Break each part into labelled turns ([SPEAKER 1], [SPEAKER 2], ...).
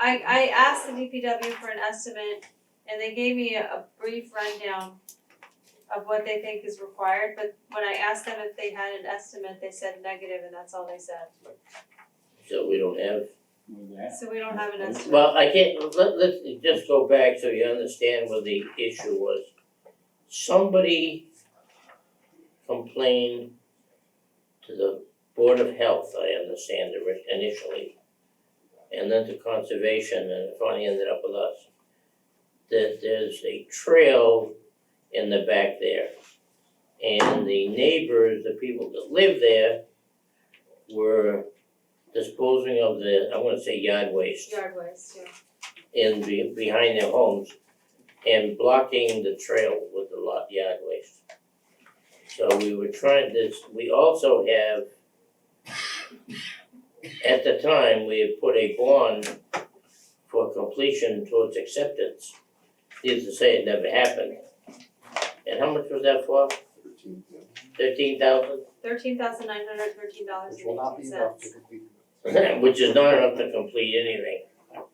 [SPEAKER 1] I, I asked the DPW for an estimate and they gave me a, a brief rundown of what they think is required, but when I asked them if they had an estimate, they said negative and that's all they said.
[SPEAKER 2] so we don't have.
[SPEAKER 3] with that.
[SPEAKER 1] So we don't have an estimate.
[SPEAKER 2] Well, I can't, let, let's just go back so you understand what the issue was. Somebody complained to the Board of Health, I understand ori- initially, and then to Conservation, and it finally ended up with us. That there's a trail in the back there. And the neighbors, the people that live there, were disposing of the, I wanna say yard waste
[SPEAKER 1] Yard waste, yeah.
[SPEAKER 2] in be- behind their homes and blocking the trail with the lot yard waste. So we were trying this, we also have at the time, we had put a bond for completion towards acceptance. Needless to say, it never happened. And how much was that for?
[SPEAKER 4] thirteen, yeah,
[SPEAKER 2] Thirteen thousand?
[SPEAKER 1] Thirteen thousand nine hundred thirteen dollars
[SPEAKER 4] which
[SPEAKER 1] and
[SPEAKER 4] will not
[SPEAKER 1] eighteen
[SPEAKER 4] be enough to
[SPEAKER 1] cents.
[SPEAKER 4] complete the
[SPEAKER 2] which is not enough to complete anything.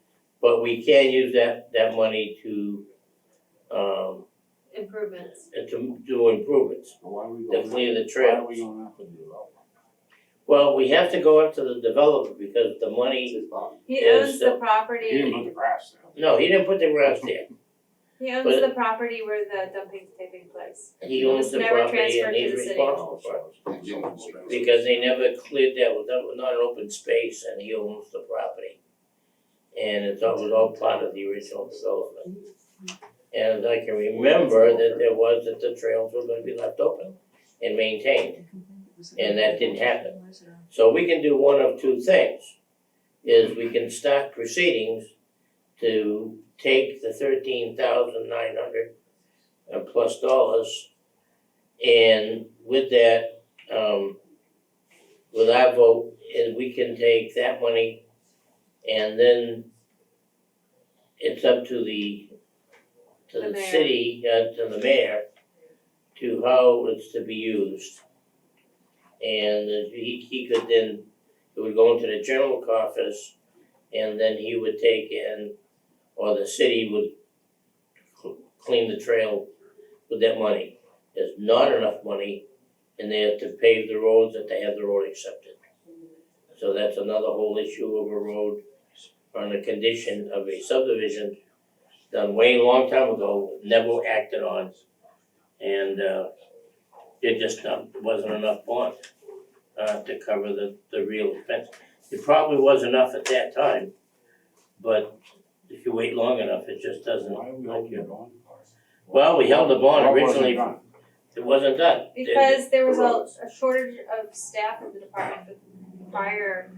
[SPEAKER 2] But we can use that that money to um
[SPEAKER 1] Improvements.
[SPEAKER 2] to do improvements,
[SPEAKER 3] But why are we
[SPEAKER 2] to
[SPEAKER 3] going,
[SPEAKER 2] clear the
[SPEAKER 3] why are
[SPEAKER 2] trails.
[SPEAKER 3] we going up and develop?
[SPEAKER 2] Well, we have to go up to the developer because the money,
[SPEAKER 1] He
[SPEAKER 2] Is
[SPEAKER 1] owns the
[SPEAKER 2] the-
[SPEAKER 3] You didn't put
[SPEAKER 1] property,
[SPEAKER 3] the grass down.
[SPEAKER 2] no, he didn't put the grass there.
[SPEAKER 1] he owns
[SPEAKER 2] but-
[SPEAKER 1] the property where the dumping's taking place.
[SPEAKER 2] He owns the
[SPEAKER 1] It was never
[SPEAKER 2] property
[SPEAKER 1] transferred
[SPEAKER 2] and
[SPEAKER 1] to
[SPEAKER 2] he's
[SPEAKER 1] the city.
[SPEAKER 2] responsible for it.
[SPEAKER 4] And you don't expect-
[SPEAKER 2] Because they never cleared that, well, that was not an open space and he owns the property. And it's all, was all part of the original development. And I can remember that there was, that the trails were gonna be left open and maintained. And that uh, didn't happen. So we can do one of two things, is we can start proceedings to take the thirteen thousand nine hundred plus dollars and with that, um, with our vote, and we can take that money and then it's up to the, to
[SPEAKER 1] The
[SPEAKER 2] the
[SPEAKER 1] mayor.
[SPEAKER 2] city, uh, to the mayor, to how it's to be used. And uh, he he could then, it would go into the general office and then he would take in, or the city would cl- clean the trail with that money. There's not enough money and they have to pave the roads that they have the road accepted. So that's another whole issue of a road on the condition of a subdivision done way long time ago, never acted on. And uh it just not, wasn't enough bond uh to cover the the real expense. It probably was enough at that time, but if you wait long enough, it just doesn't.
[SPEAKER 3] Why are we holding it on?
[SPEAKER 2] Well, we held the bond
[SPEAKER 3] Why wasn't
[SPEAKER 2] originally.
[SPEAKER 3] it done?
[SPEAKER 2] It wasn't done. They-
[SPEAKER 1] Because there was a, a shortage of staff in the department prior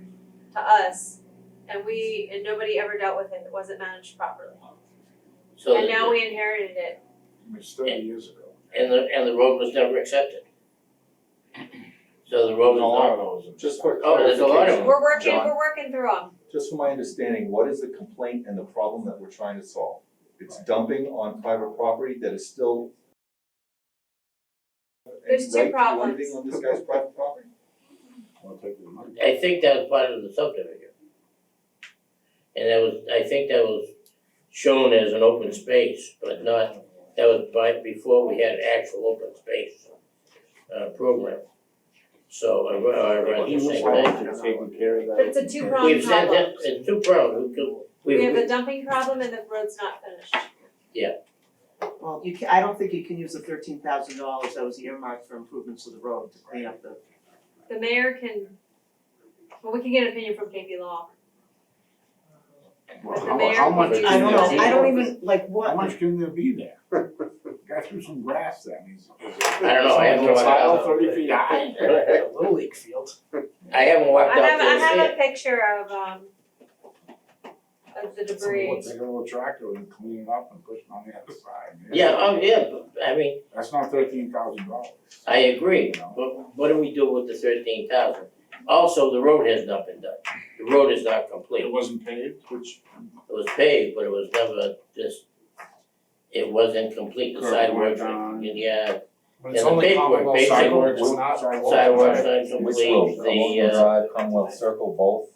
[SPEAKER 1] to us, and we, and nobody ever dealt with it, it wasn't managed properly.
[SPEAKER 2] So
[SPEAKER 1] And
[SPEAKER 2] the-
[SPEAKER 1] now we inherited it,
[SPEAKER 3] It's thirty years ago.
[SPEAKER 2] and the and the road was never accepted. So the road was
[SPEAKER 3] There's a lot
[SPEAKER 2] not,
[SPEAKER 3] of those.
[SPEAKER 5] Just for
[SPEAKER 2] Oh, there's a lot of
[SPEAKER 5] clarification,
[SPEAKER 2] them.
[SPEAKER 1] we're working,
[SPEAKER 5] John.
[SPEAKER 1] we're working through them.
[SPEAKER 5] just for my understanding, what is the complaint and the problem that we're trying to solve? It's dumping on private property that is still.
[SPEAKER 1] There's two
[SPEAKER 5] Right to
[SPEAKER 1] problems.
[SPEAKER 5] Living on this guy's private property?
[SPEAKER 3] We'll take the money.
[SPEAKER 2] I think that was part of the subdivision. And that was, I think that was shown as an open space, but not, that was by, before we had actual open space uh program. So I re- I read
[SPEAKER 3] He
[SPEAKER 2] the
[SPEAKER 3] was
[SPEAKER 2] same thing.
[SPEAKER 3] supposed to take care of that.
[SPEAKER 1] But it's a two-pronged problem.
[SPEAKER 2] We've said that, it's two problems, we
[SPEAKER 1] We have
[SPEAKER 2] we,
[SPEAKER 1] a dumping problem and the road's not finished.
[SPEAKER 6] Well, you can, I don't think you can use the thirteen thousand dollars that was earmarked for improvements to the road to clean up the,
[SPEAKER 1] The mayor can, well, we can get an opinion from KP Law.
[SPEAKER 3] Well,
[SPEAKER 1] But the
[SPEAKER 3] how-
[SPEAKER 1] mayor
[SPEAKER 3] how
[SPEAKER 1] would
[SPEAKER 3] much
[SPEAKER 1] use
[SPEAKER 3] can
[SPEAKER 6] I don't know,
[SPEAKER 3] there be?
[SPEAKER 6] I don't even, like,
[SPEAKER 3] How
[SPEAKER 6] what,
[SPEAKER 3] much can there be there? Got through some grass that means.
[SPEAKER 2] I don't know, I haven't.
[SPEAKER 3] Tile thirty feet high.
[SPEAKER 7] Little League field.
[SPEAKER 2] I haven't
[SPEAKER 1] I
[SPEAKER 2] walked out
[SPEAKER 1] have,
[SPEAKER 2] there
[SPEAKER 1] I
[SPEAKER 2] to see
[SPEAKER 1] have
[SPEAKER 2] it.
[SPEAKER 1] a picture of, um, of the debris.
[SPEAKER 3] Take a little tractor and clean it up and push it on the other side.
[SPEAKER 2] Yeah, oh, yeah, but, I mean,
[SPEAKER 3] That's not thirteen thousand dollars.
[SPEAKER 2] I agree, but what do we do with the thirteen thousand? Also, the road has not been done, the road is not complete,
[SPEAKER 3] It
[SPEAKER 2] it
[SPEAKER 3] wasn't paved, which
[SPEAKER 2] was paved, but it was never just, it wasn't complete, the
[SPEAKER 3] Curb
[SPEAKER 2] sidewalks,
[SPEAKER 3] went down.
[SPEAKER 2] and yeah,
[SPEAKER 7] But
[SPEAKER 2] it's And the only paperwork, Commonwealth basically,
[SPEAKER 3] sidewalks, not
[SPEAKER 2] sidewalks not complete, the uh.
[SPEAKER 5] Commonwealth Circle, both?